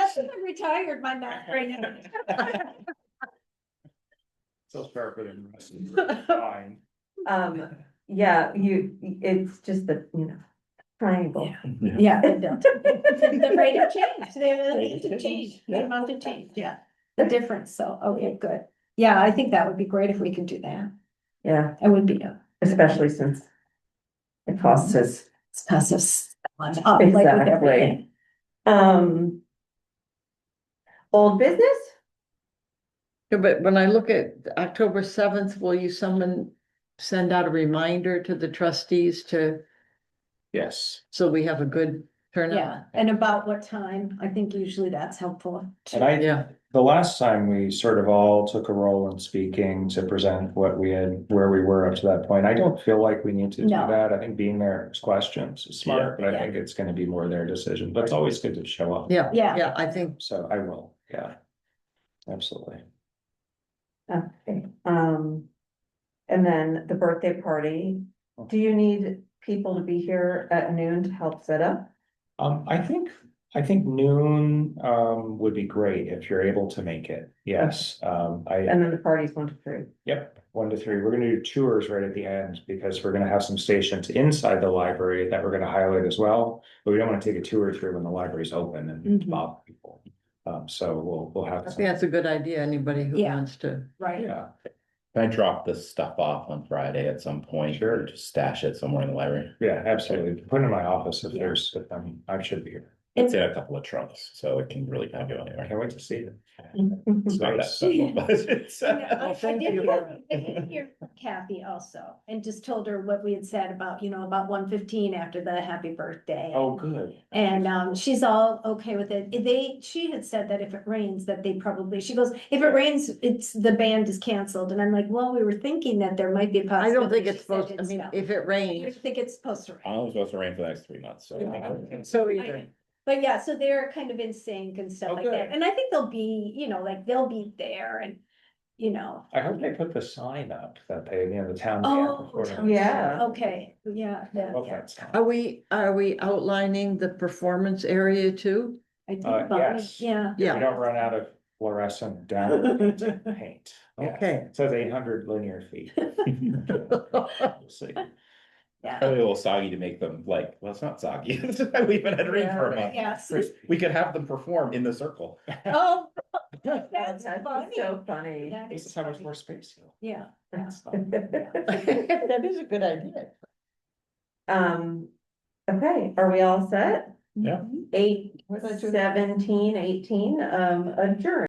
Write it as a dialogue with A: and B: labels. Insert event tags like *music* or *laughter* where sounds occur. A: I'm retired, my math brain.
B: Sells carpet and rest is fine.
C: Um, yeah, you, it's just the, you know, triangle.
A: Yeah. *laughs* The rate of change, the rate of change, the
B: Yeah.
A: amount of change, yeah, the difference, so, okay, good. Yeah, I think that would be great if we can do that,
C: Yeah,
A: that would be a.
C: especially since it costs us.
A: It's passive. Like with everything.
C: Um. Old business?
D: Yeah, But when I look at October seventh, will you someone send out a reminder to the trustees to,
B: Yes,
D: so we have a good turnout?
A: Yeah, and about what time, I think usually that's helpful.
B: and I,
D: Yeah,
B: the last time we sort of all took a role in speaking to present what we had, where we were up to that point. I don't feel like we need to do
A: No.
B: that. I think being there is questions is smart, but I think it's gonna be more their decision, but it's always good to show up.
D: yeah,
A: Yeah,
D: yeah, I think,
B: So I will, yeah. Absolutely.
C: Okay, um. And then the birthday party, do you need people to be here at noon to help set up?
B: Um, I think, I think noon, um, would be great if you're able to make it. Yes, um, I,
C: And then the party's one to three.
B: Yep, one to three. We're gonna do tours right at the end because we're gonna have some stations inside the library that we're gonna highlight as well. But we don't wanna take a tour through when the library's open and
A: Mhm.
B: bother people. Um, so we'll, we'll
D: I
B: have.
D: think
B: some-
D: that's a good idea, anybody who
A: Yeah.
D: wants to.
A: right,
B: Yeah,
E: Can I drop this stuff off on Friday at some point?
B: Sure.
E: Just stash it somewhere in the library.
B: yeah, absolutely. Put it in my office if there's, if I'm, I should be here.
E: It's in a couple of trunks, so it can really not go
B: I
E: anywhere.
B: can't wait to see it.
E: It's not that
B: Nice.
E: special, *laughs* but it's- uh,
A: You know, I- I
D: thank
A: did
D: you.
A: hear- I did hear from Kathy also, and just told her what we had said about, you know, about one fifteen after the happy birthday.
B: Oh, good.
A: And um, she's all okay with it. They, she had said that if it rains, that they probably, she goes, if it rains, it's, the band is canceled. And I'm like, well, we were thinking that there might be a
D: I
A: possibility.
D: don't think it's
A: She said
D: supposed, I mean,
A: not.
D: if it
A: I don't
D: rains.
A: think it's supposed to
E: I
A: rain.
E: don't think it's supposed to rain for the next three months, so. I think we're-
D: So
A: either. But yeah, so they're kind of in sync and stuff
B: Oh,
A: like
B: good.
A: that. And I think they'll be, you know, like they'll be there and, you know,
B: I hope they put the sign up that they, you know, the town.
A: Oh, town Oh,
C: Yeah.
A: okay, yeah, yeah. yeah.
B: Okay.
D: Are we, are we outlining the performance area too?
A: I think
B: Uh,
A: about it,
B: yes.
A: yeah.
B: We
D: Yeah,
B: don't run out of
A: *laughs*
B: fluorescent down paint. Yeah.
D: okay.
B: It says eight hundred linear feet. We'll see.
A: Yeah,
E: Probably a little soggy to make them like, well, it's not soggy. *laughs* We've been at rain for a
D: *laughs*
E: month.
A: yes.
E: We could have them perform in the circle.
A: Oh,
C: That's
A: that's funny.
C: so funny.
A: That
B: This
A: is
B: is how much
A: funny.
B: more space you.
A: Yeah.
D: That is a good idea.
C: *laughs* Um, okay, are we all set?
E: Yeah.
C: Eight,
D: What did I do?
C: seventeen, eighteen, um, adjourn.